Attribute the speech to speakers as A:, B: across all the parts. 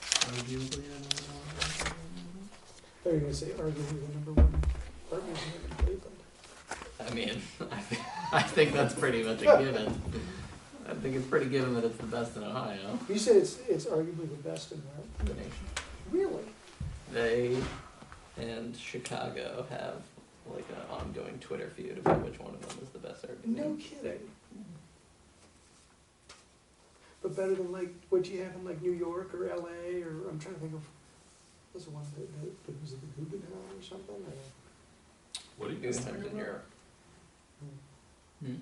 A: arguably the number one.
B: They're gonna say arguably the number one partners in Cleveland.
A: I mean, I, th- I think that's pretty much a given. I think it's pretty given that it's the best in Ohio.
B: You said it's, it's arguably the best in
A: in the
B: the,
A: nation.
B: really?
A: They and Chicago have like an ongoing Twitter feud about which one of them is the best arguably.
B: No kidding. But better than like what you have in like New York or LA or, I'm trying to think of, was the one that, that- that was it the Guggenheim or something or?
C: What are you guys
A: Guggenheim's in
C: talking about?
A: Europe. Hmm.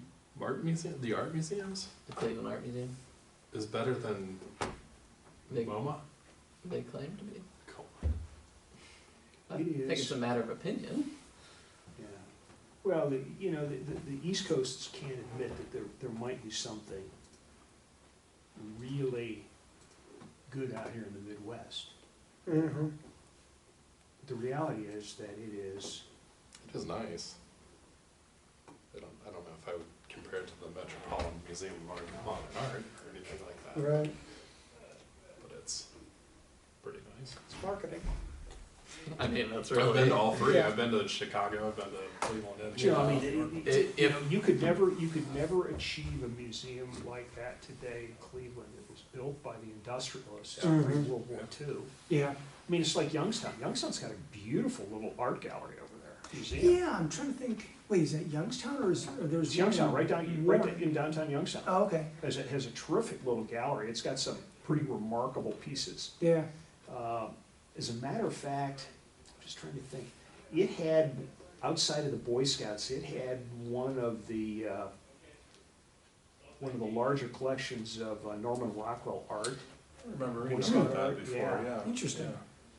C: Art museum, the art museums
A: The Cleveland Art Museum.
C: is better than
A: They,
C: MoMA.
A: they claim to be.
C: Cool.
A: I
D: It
A: think
D: is.
A: it's a matter of opinion.
D: Yeah. Well, the, you know, the, the, the East Coasts can't admit that there, there might be something really good out here in the Midwest.
B: Mm-hmm.
D: The reality is that it is,
C: It is nice. I don't, I don't know if I would compare it to the Metropolitan Museum of Modern, Modern Art or anything like that,
B: Right,
C: but it's pretty nice.
B: it's marketing.
A: I mean, that's
C: I've been
A: really.
C: to all three.
B: Yeah.
C: I've been to Chicago. I've been to Cleveland. and
D: you know, I mean,
C: Chicago.
D: it-
A: If-
D: it- you know, you could never, you could never achieve a museum like that today in Cleveland. It was built by the industrialists after
B: Mhm.
D: World War II.
B: Yeah.
D: I mean, it's like Youngstown. Youngstown's got a beautiful little art gallery over there, museum.
B: Yeah, I'm trying to think, wait, is that Youngstown or is, or there's?
D: It's Youngstown,
B: one
D: right down, right
B: Warren?
D: in downtown Youngstown.
B: Oh, okay,
D: has a, has a terrific little gallery. It's got some pretty remarkable pieces.
B: yeah.
D: Uh, as a matter of fact, I'm just trying to think. It had outside of the Boy Scouts, it had one of the uh, one of the larger collections of uh, Norman Rockwell art.
C: I remember
D: Boy
C: reading
D: Scout
C: about that
D: art,
C: before.
D: yeah.
C: Yeah.
B: Interesting.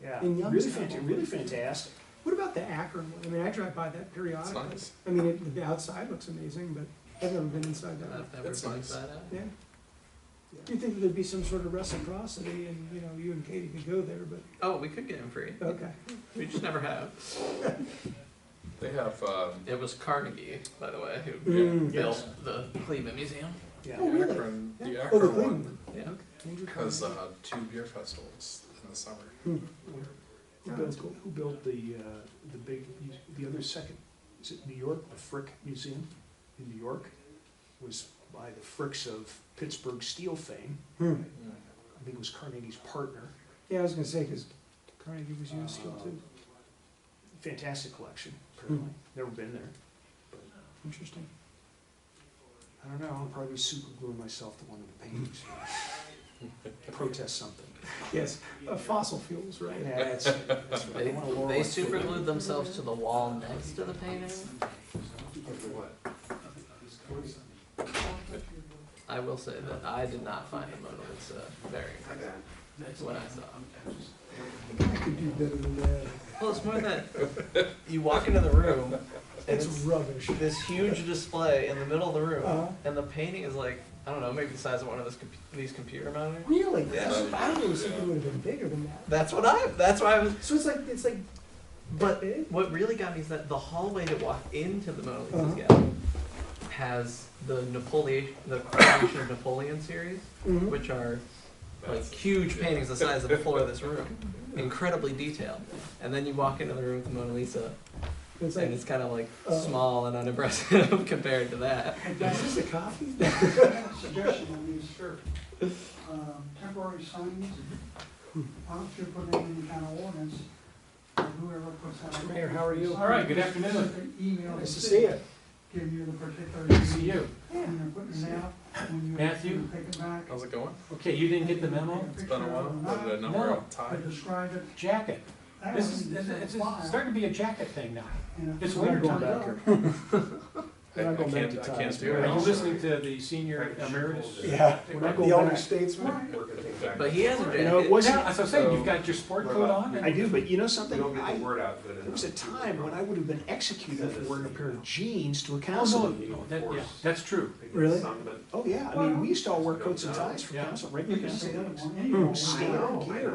D: Yeah,
B: In
D: really,
B: Youngstown.
D: fanta- really fantastic.
B: What about the Akron one? I mean, I drive by that
C: It's
B: periodically.
C: nice.
B: I mean, it, the outside looks amazing, but I've never been inside that one.
A: I've never
C: That's
A: been
C: nice.
A: inside out.
B: Yeah. Do you think there'd be some sort of reciprocity and, you know, you and Katie could go there, but,
A: Oh, we could get him free.
B: okay.
A: We just never have.
C: They have um,
A: It was Carnegie, by the way, who
B: Mm.
A: built the Cleveland Museum.
D: Yeah.
B: Oh,
C: the
B: really?
C: Akron,
B: Yeah.
C: the
B: Oh, the
C: Akron
B: Cleveland.
C: one
A: Yeah.
B: Andrew
C: has
B: Carnegie.
C: uh, two beer festivals in the summer.
D: Who
B: Yeah,
D: built,
B: that's cool.
D: who built the uh, the big the other second? Is it New York? The Frick Museum in New York was by the Fricks of Pittsburgh steel fame.
B: Hmm.
D: I think it was Carnegie's partner.
B: Yeah, I was gonna say, cause Carnegie was used still too.
D: Fantastic collection, apparently. Never been there.
B: Interesting.
D: I don't know. I'll probably super glue myself to one of the paintings. Protest something.
B: Yes, uh, fossil fuels,
D: Yeah,
B: right?
D: that's, that's right. I
A: They,
D: don't wanna lower
A: they
D: my foot.
A: super glued themselves to the wall next to the painting. I will say that I did not find the Mona Lisa uh, very impressive when I saw it.
B: I could do better than that.
A: Well, it's more that you walk into the room and
B: It's
A: it's
B: rubbish.
A: this huge display in the middle of the
B: Uh-huh.
A: room, and the painting is like, I don't know, maybe the size of one of those, compu- these computer monitors.
B: Really?
A: Yeah.
B: I really think it would've been bigger than that.
A: That's what I, that's why I was
B: So it's like, it's like,
A: But
B: big?
A: what really got me is that the hallway to walk into the Mona Lisa's
B: Uh-huh.
A: gallery has the Napoleon, the Coronation of Napoleon series,
D: Mm-hmm.
B: Mhm.
A: which are like
C: That's-
A: huge paintings the size of the floor of this room, incredibly detailed. And then you walk into the room with the Mona Lisa,
B: It's
A: and
B: like,
A: it's kind of like
B: Oh.
A: small and unimpressive compared to that.
B: is this a coffee?
E: suggestion on these, sure. Um, Temporary signs, why don't you put in any kind of ordinance, that whoever puts that. up-
B: Mayor, how are you?
E: All right, good afternoon. Email.
B: Nice to see you.
E: Give you the particular.
F: See you.
E: When you're putting it out, when you.
F: Matthew?
E: you Pick it back.
C: How's it going?
F: Okay, you didn't get the memo?
E: Take a
C: It's been a
E: picture
C: while.
E: of
C: What did I
E: it,
C: number
F: No.
C: off
E: To
C: time?
E: describe it.
F: Jacket.
E: That
F: This
E: one
F: is,
E: is
F: it's
E: a
F: it's
E: flyer,
F: starting to be a jacket thing now.
E: and
F: It's
D: I'm
F: winter
D: not going
F: time.
D: back here.
C: I,
D: We're not
C: I
D: going back
C: can't.
D: to
C: I
D: time.
C: can't do
D: We're
C: it.
D: not
F: Are you
D: going
F: listening to the senior emeritus?
B: Yeah.
D: We're not
B: The
D: going
B: elder
D: back.
B: statesman?
A: But he has a
D: You know,
A: jacket.
D: it
F: Yeah,
D: wasn't,
F: that's what I'm saying, you've got your sport coat on
D: I
F: and
D: do, but you know something?
G: We don't get
D: I-
G: the word out good enough.
D: There was a time when I would have been executed for wearing a pair of jeans to a
F: Oh,
D: council
F: no,
D: meeting.
F: that- yeah, that's true.
G: Because
B: Really?
G: some of it-
D: Oh, yeah, I mean, we used to all wear coats and ties for
F: Yeah.
D: council, regular council.
B: Hmm,
E: the other one.
D: Stay on gear.